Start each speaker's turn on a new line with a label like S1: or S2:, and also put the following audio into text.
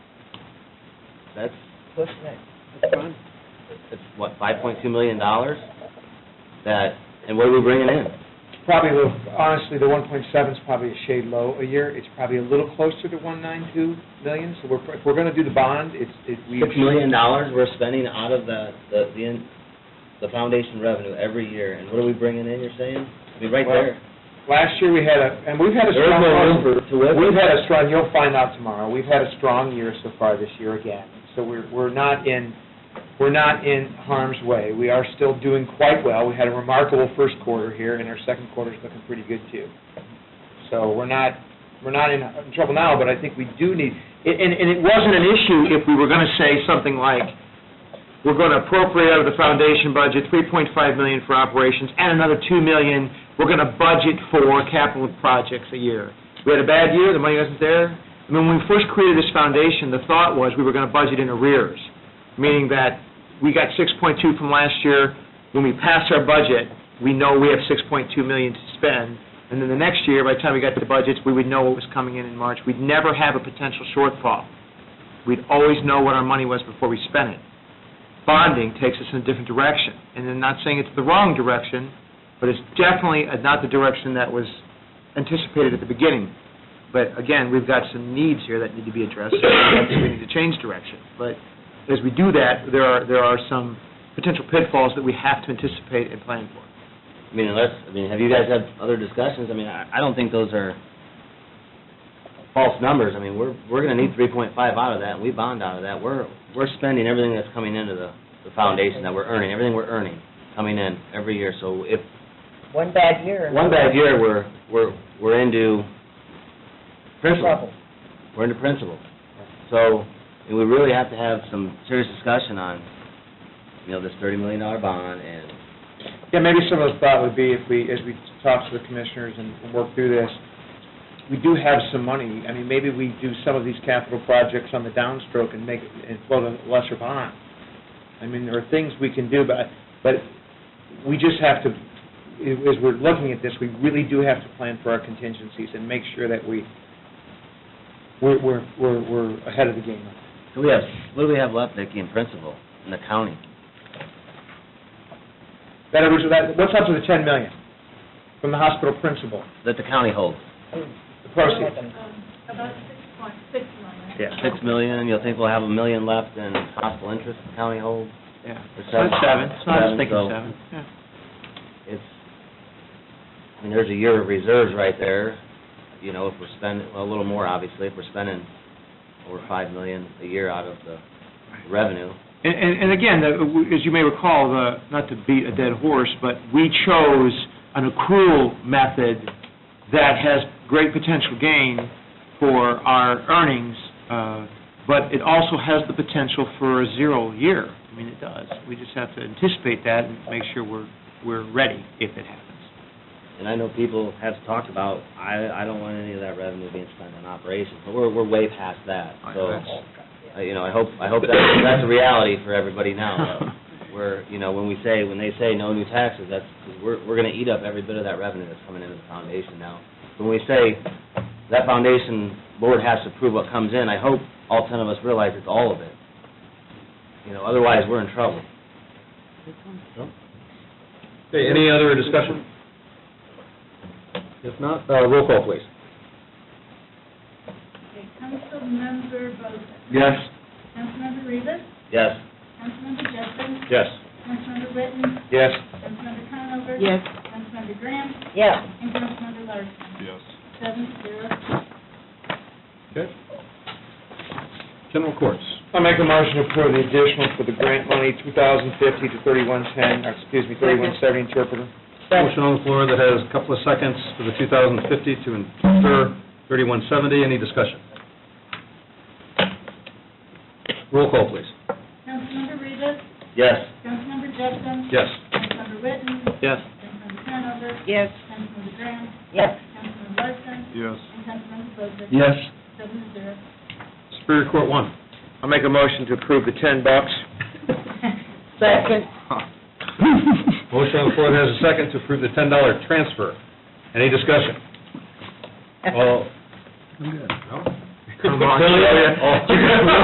S1: That's,
S2: What's next?
S1: that's what, five point two million dollars? That, and what are we bringing in?
S3: Probably, a little- honestly, the 1.7 is probably a shade low a year. It's probably a little closer to 192 million, so we're, if we're going to do the bond, it's, it, we...
S1: Six million dollars we're spending out of the, the, the, in- the foundation revenue every year, and what are we bringing in, you're saying? I mean, right there.
S3: Last year, we had a, and we've had a
S1: There is
S3: strong...
S1: no room for- to live.
S3: We've had a strong, you'll find out tomorrow, we've had a strong year so far this year again. So we're, we're not in, we're not in harm's way. We are still doing quite well. We had a remarkable first quarter here, and our second quarter's looking pretty good, too. So we're not, we're not in trouble now, but I think we do need, and, and it wasn't an issue if we were going to say something like, we're going to appropriate out of the foundation budget 3.5 million for operations and another 2 million, we're going to budget for capital projects a year. We had a bad year, the money wasn't there. I mean, when we first created this foundation, the thought was we were going to budget in arrears, meaning that we got 6.2 from last year. When we pass our budget, we know we have 6.2 million to spend. And then the next year, by the time we got to the budgets, we would know what was coming in in March. We'd never have a potential shortfall. We'd always know what our money was before we spent it bonding takes us in a different direction. And I'm not saying it's the wrong direction, but it's definitely not the direction that was anticipated at the beginning. But again, we've got some needs here that need to be addressed, and we need to change direction. But as we do that, there are, there are some potential pitfalls that we have to anticipate and plan for.
S1: I mean, unless, I mean, have you guys had other discussions? I mean, I, I don't think those are false numbers. I mean, we're, we're gonna need three point five out of that, and we bond out of that. We're, we're spending everything that's coming into the, the foundation that we're earning, everything we're earning, coming in every year. So if
S2: One bad year.
S1: one bad year, we're, we're, we're into principal.
S2: Trouble.
S1: We're into principal. So, and we really have to have some serious discussion on, you know, this thirty million dollar bond and
S3: Yeah, maybe some of the thought would be if we, as we talk to the commissioners and and work through this, we do have some money. I mean, maybe we do some of these capital projects on the downstroke and make, and float a lesser bond. I mean, there are things we can do, but, but we just have to, as we're looking at this, we really do have to plan for our contingencies and make sure that we, we're, we're, we're we're ahead of the game.
S1: So we have, what do we have left, Vicki, in principal, in the county?
S3: That, was- that- what's up to the 10 million from the hospital principal,
S1: That the county holds?
S3: the proceeds?
S4: Um, About six point six million.
S1: Six million, you'll think we'll have a million left in possible interest the county holds?
S3: Yeah.
S1: It's
S3: So it's seven, so I
S1: Seven,
S3: was thinking
S1: so-
S3: seven, yeah.
S1: It's, I mean, there's a year of reserves right there, you know, if we're spending, well, a little more, obviously, if we're spending over five million a year out of the revenue.
S5: And- And, and again, the- as you may recall, the, not to beat a dead horse, but we chose an accrual method that has great potential gain for our earnings, uh, but it also has the potential for a zero year. I mean, it does. We just have to anticipate that and make sure we're, we're ready if it happens.
S1: And I know people have talked about, I, I don't want any of that revenue being spent on operations, but we're, we're way past that,
S5: I
S1: so.
S5: guess.
S1: uh, You know, I hope, I hope that's, that's a reality for everybody now, uh, though. where, you know, when we say, when they say no new taxes, that's, because we're, we're gonna eat up every bit of that revenue that's coming into the foundation now. When we say that foundation board has to approve what comes in, I hope all ten of us realize it's all of it. You know, otherwise, we're in trouble.
S6: Okay, any other discussion? If not, uh, roll call, please.
S4: Okay, Councilmember Bozick.
S6: Yes.
S4: Councilmember Rivas.
S1: Yes,
S4: Councilmember Justin.
S6: Yes.
S4: Councilmember Witten.
S3: Yes.
S4: Councilmember Conover.
S2: Yes.
S4: Councilmember Graham.
S2: Yeah.
S4: And Councilmember Larson.
S6: Yes.
S4: Seven to zero.
S6: Okay. General courts.
S3: I make a motion to approve the additional for the grant money, 2050 to 3110, or excuse me, 3170 interpreter.
S6: Motion on the floor that has a couple of seconds for the 2050 to infer 3170. Any discussion? Roll call, please.
S4: Councilmember Rivas.
S1: yes,
S4: Councilmember Justin.
S6: Yes.
S4: Councilmember Witten.
S6: Yes.
S4: Councilmember Conover.
S2: Yes.
S4: Councilmember Graham.
S2: Yes.
S4: Councilmember Larson.
S6: Yes.
S4: And Councilmember Bozick.
S6: Yes.
S4: Seven to zero.
S6: Superior Court one.
S3: I make a motion to approve the 10 bucks.
S2: Second.
S6: Motion on the floor that has a second to approve the $10 transfer. Any discussion? All. No?
S3: Come on,
S6: Billy?
S3: Julia.
S6: All-